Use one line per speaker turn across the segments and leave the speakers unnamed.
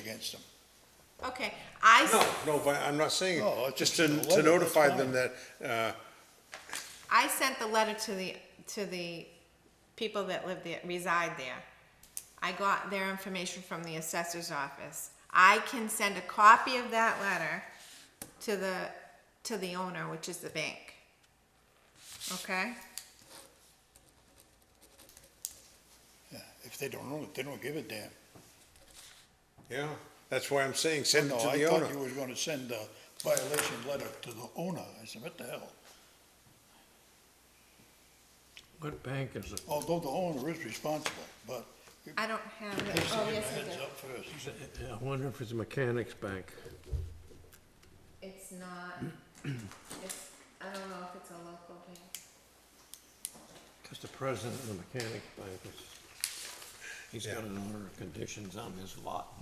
against them.
Okay, I,
No,
s-
no, but I'm not saying,
No, it's
just
just
to,
a
to
letter,
notify
that's
them that, uh,
I sent the letter to the, to the people that live there, reside there. I got their information from the assessor's office. I can send a copy of that letter to the, to the owner, which is the bank. Okay?
Yeah, If they don't own it, they don't give a damn.
yeah, that's why I'm saying, send
No,
it to
I
the owner.
thought you were gonna send a violation letter to the owner. I said, what the hell?
What bank is it?
Although the owner is responsible, but it
I don't have it.
pays to
Oh,
give a
yes, I
heads
do.
up first.
I wonder if it's a mechanics bank.
It's not, it's, I don't know if it's a local bank.
Because the president of the mechanics bank is, he's got an order of conditions on his lot.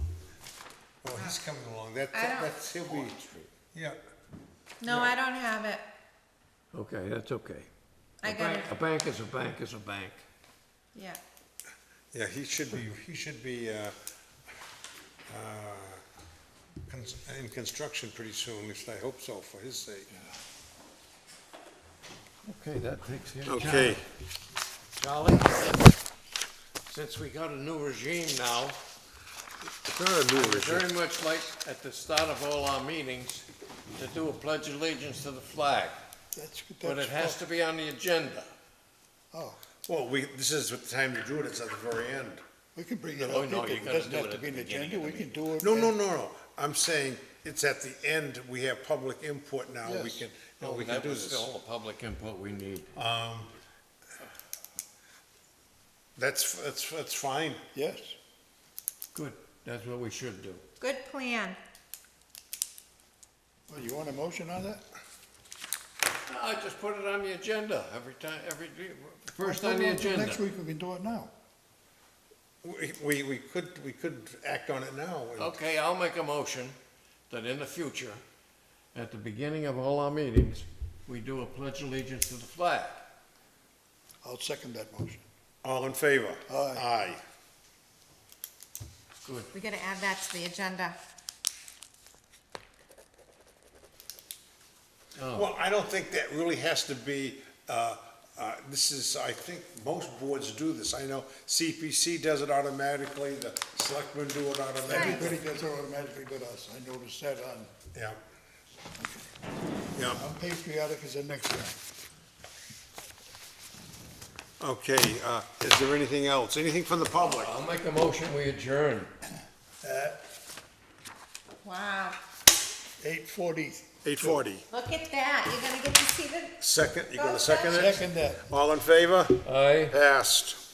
Oh, he's coming along, that,
I don't-
that's, he'll be, yeah.
No, I don't have it.
Okay, that's okay.
I
A
got
bank-
it,
A bank is a bank is a bank.
yeah.
Yeah, he should be, he should be, uh, uh, cons- in construction pretty soon, at least I hope so, for his sake.
Okay, that takes care of
Okay.
Charlie. Charlie, since we got a new regime now,
It's not a new
I'd very much like at the start of all our meetings to do a pledge allegiance to the flag,
That's, that's.
but it has to be on the agenda.
Oh,
Well, we, this is the time to do it, it's at the very end.
we can bring it
No,
up.
no, you
It
gotta
doesn't
do
have
it
to
at
be an
the beginning
agenda.
of the
We can do it.
No,
at-
no, no, no, I'm saying, it's at the end, we have public input now, we
Yes. Oh,
can, no, Oh, we can
That
do
was
this.
still the public input we need.
Um, that's, that's, that's fine.
Yes.
Good, that's what we should do.
Good plan.
Well, you want a motion on that?
No, I just put it on the agenda every time, every, first
Well,
on the
well,
agenda.
Next week, we can do it now.
We- We, we could, we could act on it now. and-
Okay, I'll make a motion that in the future, at the beginning of all our meetings, we do a pledge allegiance to the flag.
I'll second that motion.
All in favor?
Aye.
Aye.
Good.
We gotta add that to the agenda.
Oh,
Well, I don't think that really has to be, uh, uh, this is, I think most boards do this. I know CPC does it automatically, the selectmen do it automatically.
Everybody gets it automatically but us. I noticed that on,
Yeah. Yeah,
on patriotic is the next one.
okay, uh, is there anything else? Anything from the public?
I'll make a motion, we adjourn.
Wow,
Eight forty.
Eight forty.
look at that, you're gonna get to see the
Second, you gonna second it?
Second that.
All in favor?
Aye.
Passed.